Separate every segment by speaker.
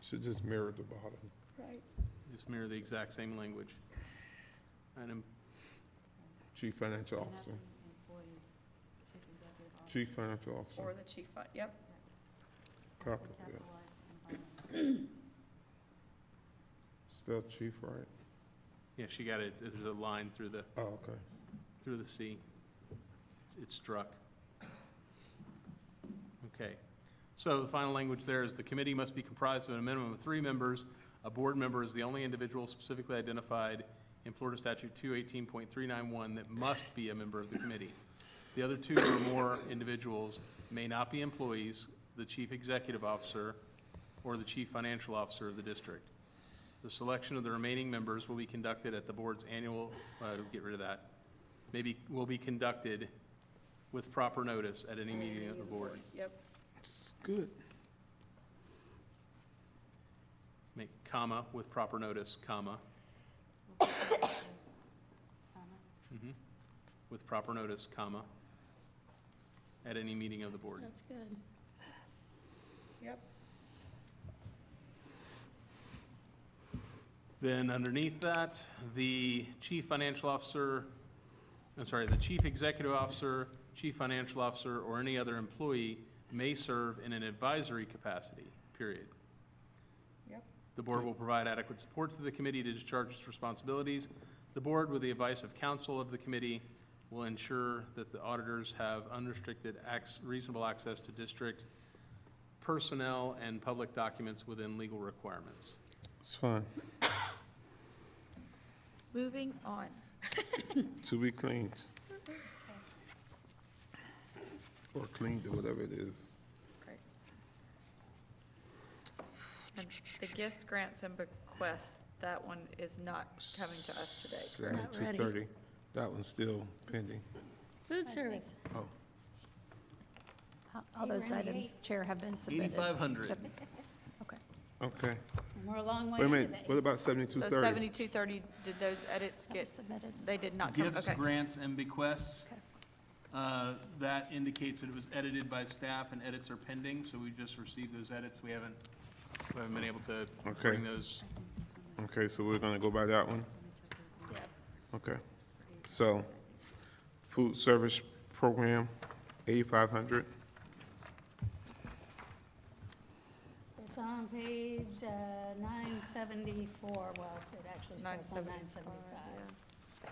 Speaker 1: Should just mirror the bottom.
Speaker 2: Right.
Speaker 3: Just mirror the exact same language. um, Item,
Speaker 1: Chief Financial Officer, Chief Financial
Speaker 2: Or
Speaker 1: Officer,
Speaker 2: the chief, fi- yep,
Speaker 1: copy that. Spell chief right?
Speaker 3: yeah, she got it, there's a line through the,
Speaker 1: Oh, okay.
Speaker 3: through the C. It's- It's struck. Okay. So the final language there is the committee must be comprised of a minimum of three members. A board member is the only individual specifically identified in Florida Statute 218.391 that must be a member of the committee. The other two or more individuals may not be employees, the chief executive officer, or the chief financial officer of the district. The selection of the remaining members will be conducted at the board's annual, uh, get rid of that, maybe, will be conducted with proper notice at any meeting of the board.
Speaker 2: yep.
Speaker 1: Good.
Speaker 3: Make comma with proper notice, comma. Mhm. With proper notice, comma. At any meeting of the board.
Speaker 4: That's good.
Speaker 2: Yep.
Speaker 3: Then underneath that, the chief financial officer, I'm sorry, the chief executive officer, chief financial officer, or any other employee may serve in an advisory capacity, period.
Speaker 2: Yep.
Speaker 3: The board will provide adequate support to the committee to discharge its responsibilities. The board, with the advice of counsel of the committee, will ensure that the auditors have unrestricted, acc- reasonable access to district personnel and public documents within legal requirements.
Speaker 1: It's fine.
Speaker 4: Moving on.
Speaker 1: To be cleaned. Or cleaned, or whatever it is.
Speaker 2: Great. And the gifts, grants, and bequests, that one is not coming to us today, correct?
Speaker 4: Not ready.
Speaker 1: 7230. That one's still pending.
Speaker 4: Food service.
Speaker 1: Oh,
Speaker 5: All those items, Chair, have been submitted.
Speaker 3: 8,500.
Speaker 5: Sub- Okay.
Speaker 1: okay.
Speaker 6: We're a long way
Speaker 1: Wait a
Speaker 6: into
Speaker 1: minute,
Speaker 6: that.
Speaker 1: what about
Speaker 2: So
Speaker 1: 7230?
Speaker 2: seventy-two thirty, did those edits
Speaker 5: That was
Speaker 2: get,
Speaker 5: submitted.
Speaker 2: they did not Uh, come,
Speaker 3: Gifts,
Speaker 2: okay.
Speaker 3: grants, and bequests.
Speaker 5: Okay.
Speaker 3: Uh, That indicates that it was edited by staff and edits are pending, so we just received those edits. We haven't, we haven't been able to
Speaker 1: Okay.
Speaker 3: bring those.
Speaker 1: Okay, so we're gonna go by that one? Okay. So, food service program, 8,500.
Speaker 6: It's on page uh, 974, well, it actually starts on
Speaker 2: 975,
Speaker 6: 975.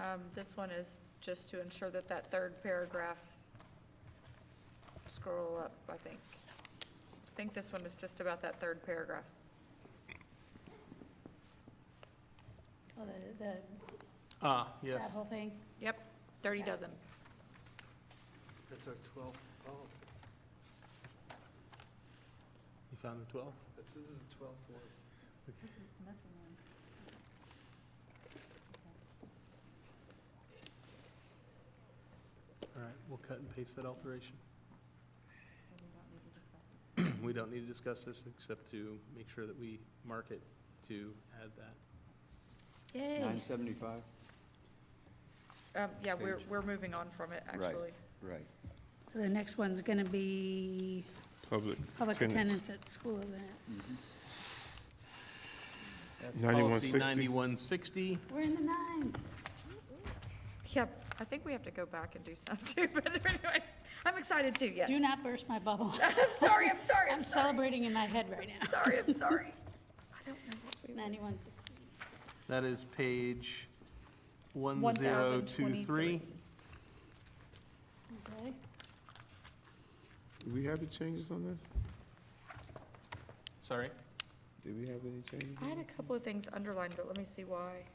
Speaker 2: Um, this one is just to ensure that that third paragraph, scroll up, I think. I think this one is just about that third paragraph.
Speaker 6: Oh, the- the
Speaker 3: Ah, yes.
Speaker 6: travel thing.
Speaker 2: Yep, dirty dozen.
Speaker 7: That's our twelfth policy.
Speaker 3: You found the 12?
Speaker 7: That's, this is the twelfth one.
Speaker 3: All right, we'll cut and paste that alteration. We don't need to discuss this except to make sure that we mark it to add that.
Speaker 4: Yay.
Speaker 8: Nine seventy-five?
Speaker 2: Um, yeah, we're,
Speaker 8: Page.
Speaker 2: we're moving on from it,
Speaker 8: Right.
Speaker 2: actually.
Speaker 8: Right.
Speaker 6: The next one's going to be
Speaker 1: Public
Speaker 6: public
Speaker 1: attendance.
Speaker 6: attendance at school events.
Speaker 3: That's
Speaker 1: 9160.
Speaker 3: Policy 9160.
Speaker 6: We're in the nines.
Speaker 2: Yep, I think we have to go back and do some too, but anyway, I'm excited too, yes.
Speaker 6: Do not burst my bubble.
Speaker 2: I'm sorry, I'm sorry, I'm
Speaker 6: I'm celebrating in my head right now.
Speaker 2: sorry, I'm sorry. I don't know what we,
Speaker 6: 9160.
Speaker 3: That is page 1023.
Speaker 2: 1023.
Speaker 6: Okay.
Speaker 1: Do we have any changes on this?
Speaker 3: Sorry?
Speaker 1: Do we have any changes?
Speaker 2: I had a couple of things underlined, but let me see why.